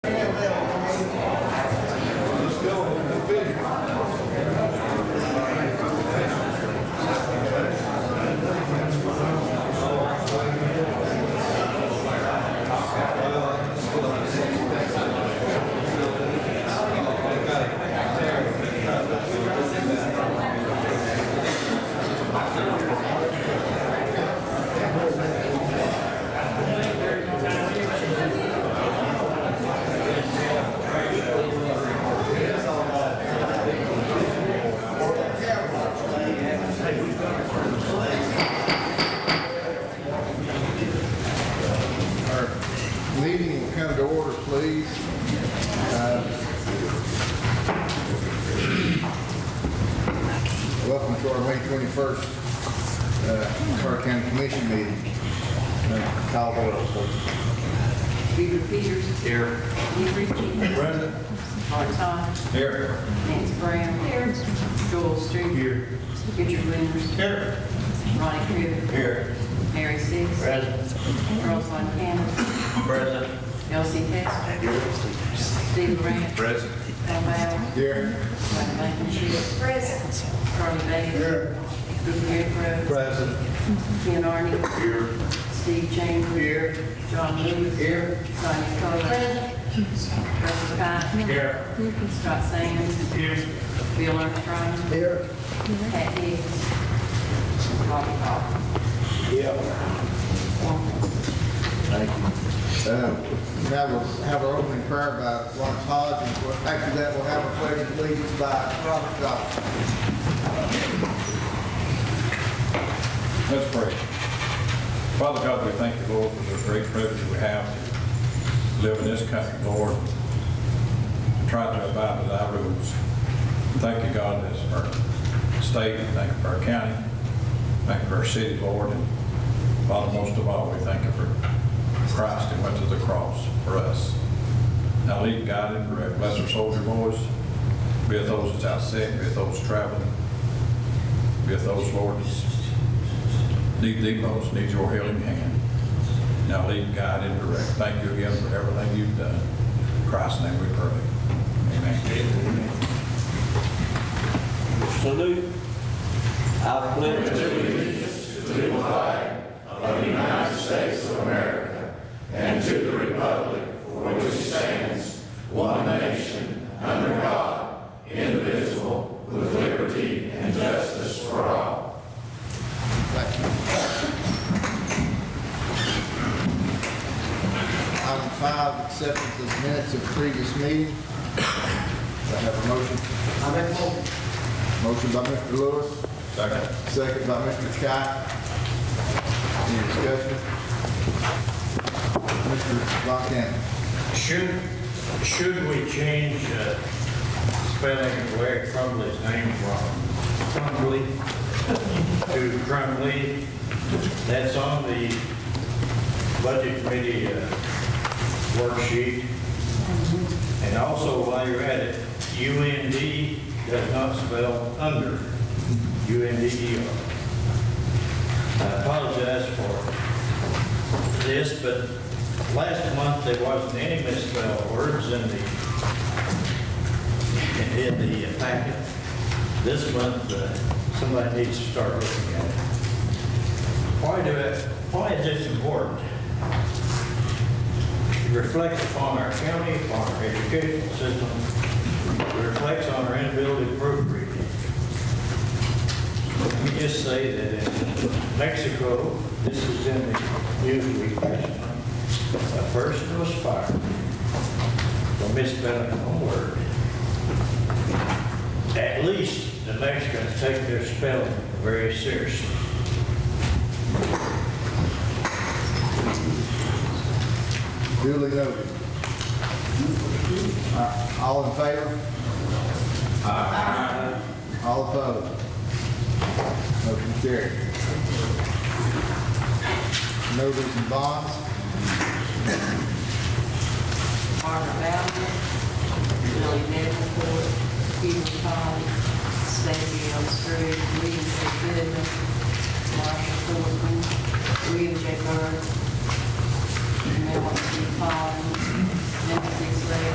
first uh, Carter County Commission meeting. Uh, Call the roll, please. Reverend Peters. Here. Henry Keating. Present. Art Todd. Here. Nancy Brown. Here. Joel Street. Here. Richard Winters. Here. Ronnie Crivitt. Here. Mary Six. Present. Charles Von Cannon. Present. Elsie Testor. Steve Grant. Present. Al Bowers. Here. Johnny Blankenship. Present. Charlie Bailey. Here. Dick Redrow. Present. Ken Arden. Here. Steve Chambers. Here. John Lewis. Here. Sonia Coler. Present. Russell Cott. Here. Scott Sands. Here. Bill Armstrong. Here. Pat Hicks. Bobby Hall. Yeah. Thank you. Uh, Now we'll have our opening prayer by Ron Todd, and we'll- after that, we'll have a pledge of allegiance by Robert Goff. Let's pray. Father God, we thank you, Lord, for the great privilege we have to live in this country, Lord, and try to abide by thy rules. Thank you, God, this for our state, thank you for our county, thank you for our city, Lord, and Father, most of all, we thank you for Christ who went to the cross for us. Now lead, guide, and direct. Bless our soldier boys. Be with those that's out sick, be with those traveling, be with those, Lord, that's need thee most, need your healing hand. Now lead, guide, and direct. Thank you again for everything you've done. In Christ's name we pray. Amen. salute. I pledge allegiance Thank you. Item five, acceptance of minutes of previous meeting. Do I have a motion? I make motion. Motion by Mr. Lewis, Second. second by Mr. Scott. Any discussion? Mr. Lockhand. Should, should we change uh, spelling of Larry Crumbly's name from Crumbly to Crumbly? That's on the budget committee uh, worksheet. And also, while you're at it, UND does not spell under, UNDER. E I apologize for this, but last month there wasn't any misspelled words in the, in the packet. This month, uh, somebody needs to start looking at it. Why do it, why is this important? It reflects upon our county, upon our educational system, it reflects on our inability to proofread. Let me just say that in Mexico, this is in the Newsweek, a person was fired for misspelling a word. At least the Mexicans take their spelling very seriously. Duly noted. Uh, All in favor? Aye. All opposed? Motion carried. Notice and bonds, Margaret Bowden, Billy Davenport, Peter Todd, Stacy L. Street, William J. Goodman, Marshall Thornton, William J. Byrd, Melanie P. Collins, Nancy Slater,